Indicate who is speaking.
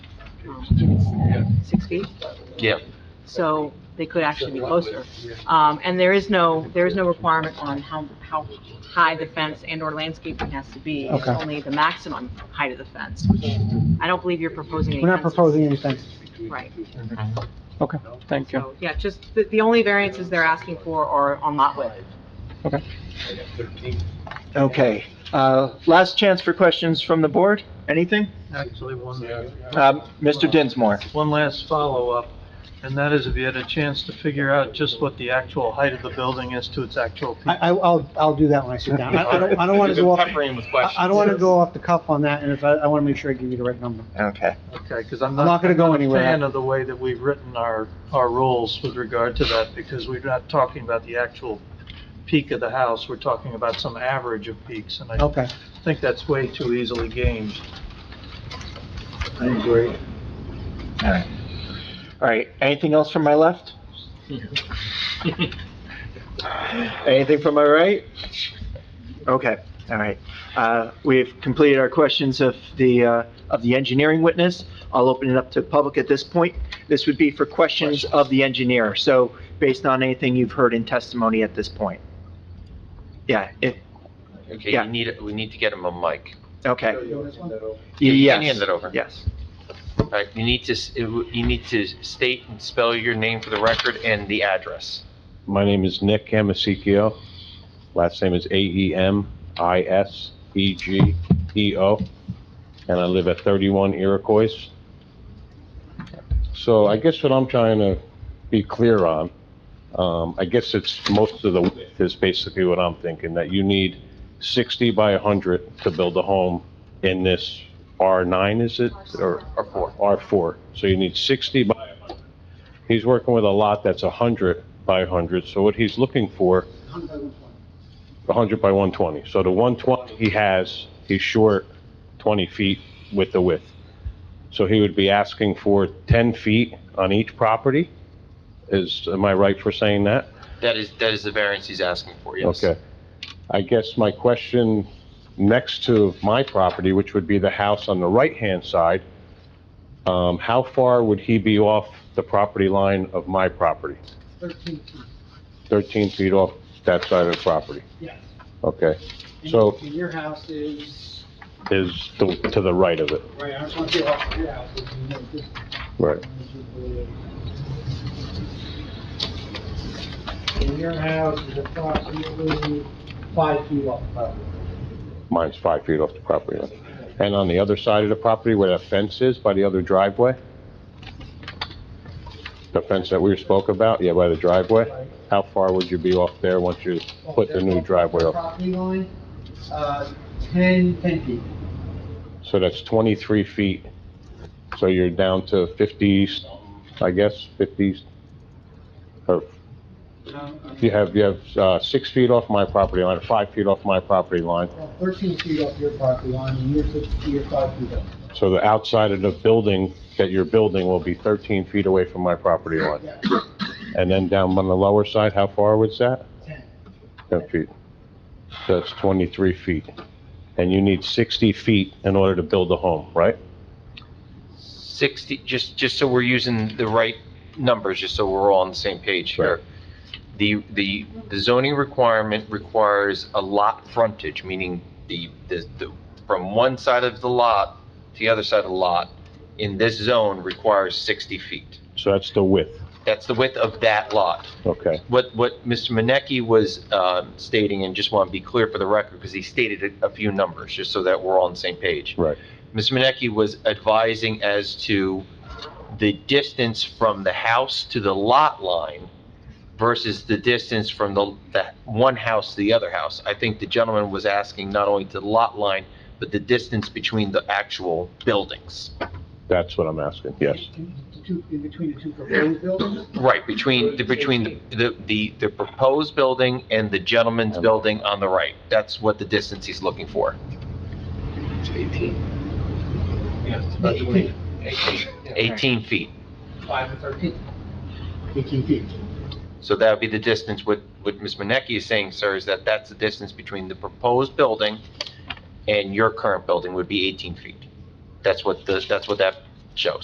Speaker 1: um, six feet,
Speaker 2: Yeah,
Speaker 1: so they could actually be closer. Um, and there is no, there is no requirement on how, how high the fence and or landscaping has to be. It's
Speaker 3: Okay.
Speaker 1: only the maximum height of the fence, which I don't believe you're proposing any
Speaker 3: We're not
Speaker 1: fences.
Speaker 3: proposing anything.
Speaker 1: Right.
Speaker 3: Okay, thank you.
Speaker 1: So, yeah, just, the, the only variances they're asking for are on lot width.
Speaker 4: Okay, uh, last chance for questions from the board, anything?
Speaker 5: Actually, one,
Speaker 4: Um, Mr. Dinsmore?
Speaker 5: one last follow-up, and that is if you had a chance to figure out just what the actual height of the building is to its actual peak.
Speaker 3: I, I, I'll, I'll do that when I sit down. I I don't, I don't want to go off,
Speaker 2: Peppering with
Speaker 3: I
Speaker 2: questions.
Speaker 3: I don't want to go off the cuff on that, and if, I, I want to make sure I give you the right number.
Speaker 4: Okay,
Speaker 5: Okay, because I'm
Speaker 3: I'm not
Speaker 5: not,
Speaker 3: gonna
Speaker 5: I'm
Speaker 3: go
Speaker 5: not a
Speaker 3: anywhere.
Speaker 5: fan of the way that we've written our, our rules with regard to that, because we're not talking about the actual peak of the house, we're talking about some average of peaks, and I
Speaker 3: Okay,
Speaker 5: think that's way too easily gauged.
Speaker 4: all right. All right, anything else from my left? Anything from my right? Okay, all right. Uh, We've completed our questions of the, uh, of the engineering witness. I'll open it up to public at this point. This would be for questions of the engineer, so based on anything you've heard in testimony at this point. Yeah, if,
Speaker 2: Okay,
Speaker 4: Yeah.
Speaker 2: you need, we need to get him a mic.
Speaker 4: okay.
Speaker 2: You
Speaker 4: Yes.
Speaker 2: can hand it over.
Speaker 4: Yes.
Speaker 2: All right, you need to, s- you need to state and spell your name for the record and the address.
Speaker 6: My name is Nick Amisekio. Last name is E A-E-M-I-S-E-G-E-O, E and I live at 31 Iroquois. So I guess what I'm trying to be clear on, um, I guess it's most of the width is basically what I'm thinking, that you need 60 by 100 to build a home in this R9, is it? Or
Speaker 2: Or four.
Speaker 6: R4, so you need 60 by 100. He's working with a lot that's 100 by 100, so what he's looking for... 100 by 120. So the 120 he has, he's short 20 feet with the width. So he would be asking for 10 feet on each property? Is, am I right for saying that?
Speaker 2: That is, that is the variance he's asking for, yes.
Speaker 6: Okay. I guess my question, next to my property, which would be the house on the right-hand side, um, how far would he be off the property line of my property? 13 feet off that side of the property?
Speaker 3: Yes.
Speaker 6: Okay. So
Speaker 3: And your house is,
Speaker 6: is to to the right of it?
Speaker 3: right, I just want to see off your house.
Speaker 6: Right.
Speaker 3: And your house is approximately five feet off the property.
Speaker 6: Mine's five feet off the property line. And on the other side of the property where that fence is, by the other driveway? The fence that we spoke about, yeah, by the driveway? How far would you be off there once you put the new driveway up?
Speaker 3: Property line, uh, ten, ten feet.
Speaker 6: So that's 23 feet. So you're down to 50, I guess, 50, or
Speaker 3: Um,
Speaker 6: you have, you have uh, six feet off my property line, five feet off my property line.
Speaker 3: well, Thirteen feet off your property line, and you're six, you're five feet up.
Speaker 6: So the outside of the building that you're building will be 13 feet away from my property line.
Speaker 3: Yeah,
Speaker 6: And then down on the lower side, how far was that?
Speaker 3: ten.
Speaker 6: 10 feet. So That's 23 feet. And you need 60 feet in order to build a home, right?
Speaker 2: 60, just, just so we're using the right numbers, just so we're all on the same page here. The, the the zoning requirement requires a lot frontage, meaning the, the, the- from one side of the lot to the other side of the lot in this zone requires 60 feet.
Speaker 6: So that's the width,
Speaker 2: That's the width of that lot.
Speaker 6: okay?
Speaker 2: What, what Mr. Minneke was um, stating, and just want to be clear for the record, because he stated a a few numbers, just so that we're all on the same page.
Speaker 6: Right.
Speaker 2: Ms. Minneke was advising as to the distance from the house to the lot line versus the distance from the, the one house to the other house. I think the gentleman was asking not only to the lot line, but the distance between the actual buildings.
Speaker 6: That's what I'm asking, yes.
Speaker 3: In the two- in between the two proposed buildings?
Speaker 2: Right, between, the between the, the, the proposed building and the gentleman's building on the right. That's what the distance he's looking for.
Speaker 3: Eighteen.
Speaker 2: 18 feet.
Speaker 3: Five and thirteen. Eighteen feet.
Speaker 2: So that would be the distance, what, what Ms. Minneke is saying, sir, is that that's the distance between the proposed building and your current building would be 18 feet. That's what the, that's what that shows.